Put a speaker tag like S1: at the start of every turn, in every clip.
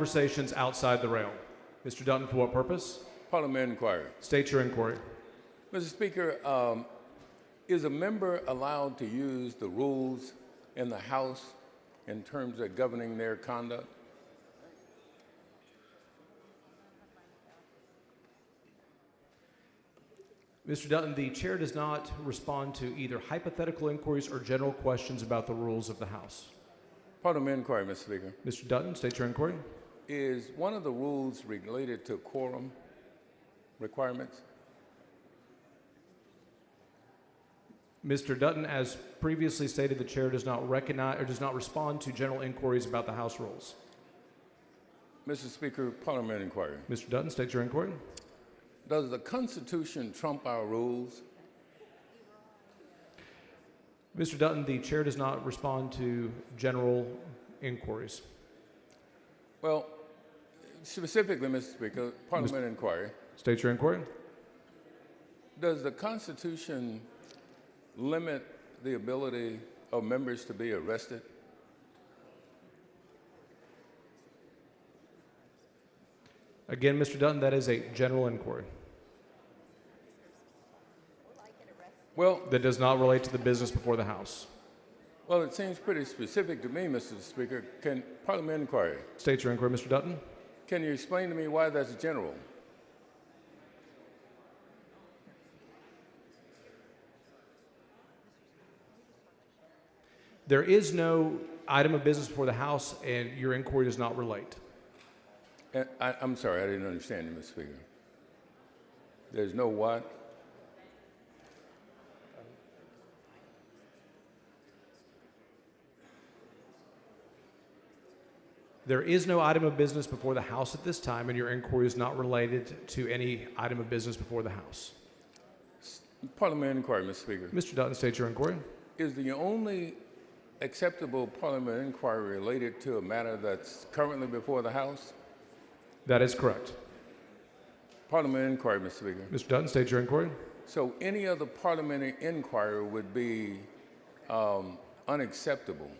S1: conversations outside the realm. Mr. Dutton, for what purpose?
S2: Parliamentary inquiry.
S1: State your inquiry.
S2: Mr. Speaker, um, is a member allowed to use the rules in the House in terms of governing their conduct?
S1: Mr. Dutton, the chair does not respond to either hypothetical inquiries or general questions about the rules of the House.
S2: Parliamentary inquiry, Mr. Speaker.
S1: Mr. Dutton, state your inquiry.
S2: Is one of the rules related to quorum requirements?
S1: Mr. Dutton, as previously stated, the chair does not recognize or does not respond to general inquiries about the House rules.
S2: Mr. Speaker, Parliamentary inquiry.
S1: Mr. Dutton, state your inquiry.
S2: Does the Constitution trump our rules?
S1: Mr. Dutton, the chair does not respond to general inquiries.
S2: Well, specifically, Mr. Speaker, Parliamentary inquiry.
S1: State your inquiry.
S2: Does the Constitution limit the ability of members to be arrested?
S1: Again, Mr. Dutton, that is a general inquiry
S2: Well,
S1: that does not relate to the business before the House.
S2: well, it seems pretty specific to me, Mr. Speaker. Can Parliamentary inquiry?
S1: State your inquiry, Mr. Dutton.
S2: Can you explain to me why that's general?
S1: There is no item of business before the House, and your inquiry does not relate.
S2: And Uh, I, I'm sorry, I didn't understand you, Mr. Speaker. There's no what?
S1: There is no item of business before the House at this time, and your inquiry is not related to any item of business before the House.
S2: Parliamentary inquiry, Mr. Speaker.
S1: Mr. Dutton, state your inquiry.
S2: Is the only acceptable parliamentary inquiry related to a matter that's currently before the House?
S1: That is correct.
S2: Parliamentary inquiry, Mr. Speaker.
S1: Mr. Dutton, state your inquiry.
S2: So any other parliamentary inquiry would be um, unacceptable.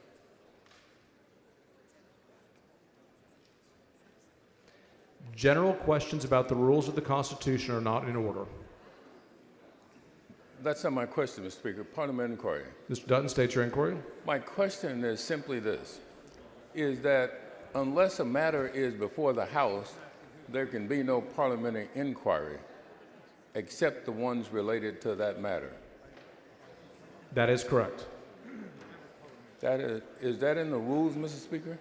S1: General questions about the rules of the Constitution are not in order.
S2: That's not my question, Mr. Speaker. Parliamentary inquiry.
S1: Mr. Dutton, state your inquiry.
S2: My question is simply this, is that unless a matter is before the House, there can be no parliamentary inquiry except the ones related to that matter.
S1: That is correct.
S2: That is, is that in the rules, Mr. Speaker?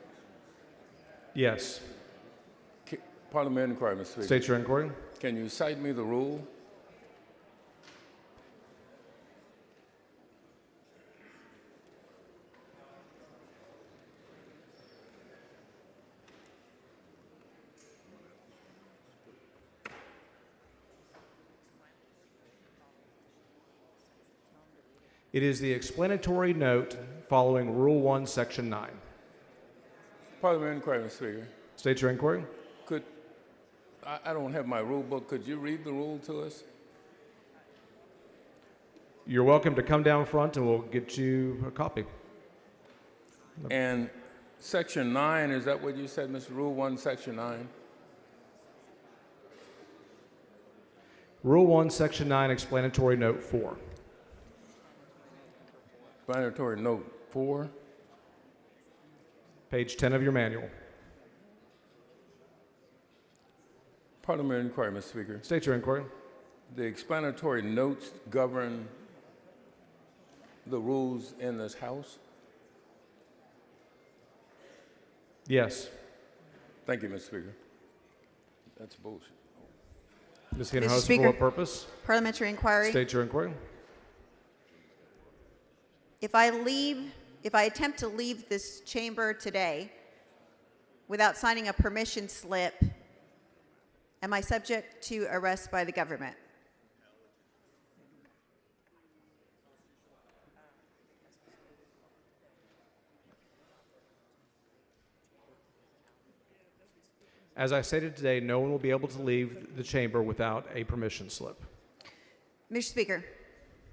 S1: Yes.
S2: Ca- Parliamentary inquiry, Mr. Speaker.
S1: State your inquiry.
S2: Can you cite me the rule?
S1: It is the explanatory note following Rule 1, Section 9.
S2: Parliamentary inquiry, Mr. Speaker.
S1: State your inquiry.
S2: Could, I, I don't have my rule book. Could you read the rule to us?
S1: You're welcome to come down front and we'll get you a copy.
S2: And section nine, is that what you said, Mr. Rule one, section nine?
S1: Rule 1, Section 9, explanatory note 4.
S2: Explanatory note four?
S1: Page 10 of your manual.
S2: Parliamentary inquiry, Mr. Speaker.
S1: State your inquiry.
S2: The explanatory notes govern the rules in this House?
S1: Yes.
S2: Thank you, Mr. Speaker. That's bullshit.
S1: Ms.
S3: Mr.
S1: Hinojosa, for
S3: Speaker.
S1: what purpose?
S3: Parliamentary inquiry.
S1: State your inquiry.
S3: If I leave, if I attempt to leave this chamber today without signing a permission slip, am I subject to arrest by the government?
S1: As I stated today, no one will be able to leave the chamber without a permission slip.
S3: Mr. Speaker,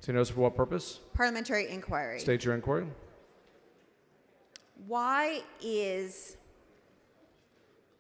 S1: Ms. Hinojosa, for what purpose?
S3: parliamentary inquiry.
S1: State your inquiry.
S3: Why is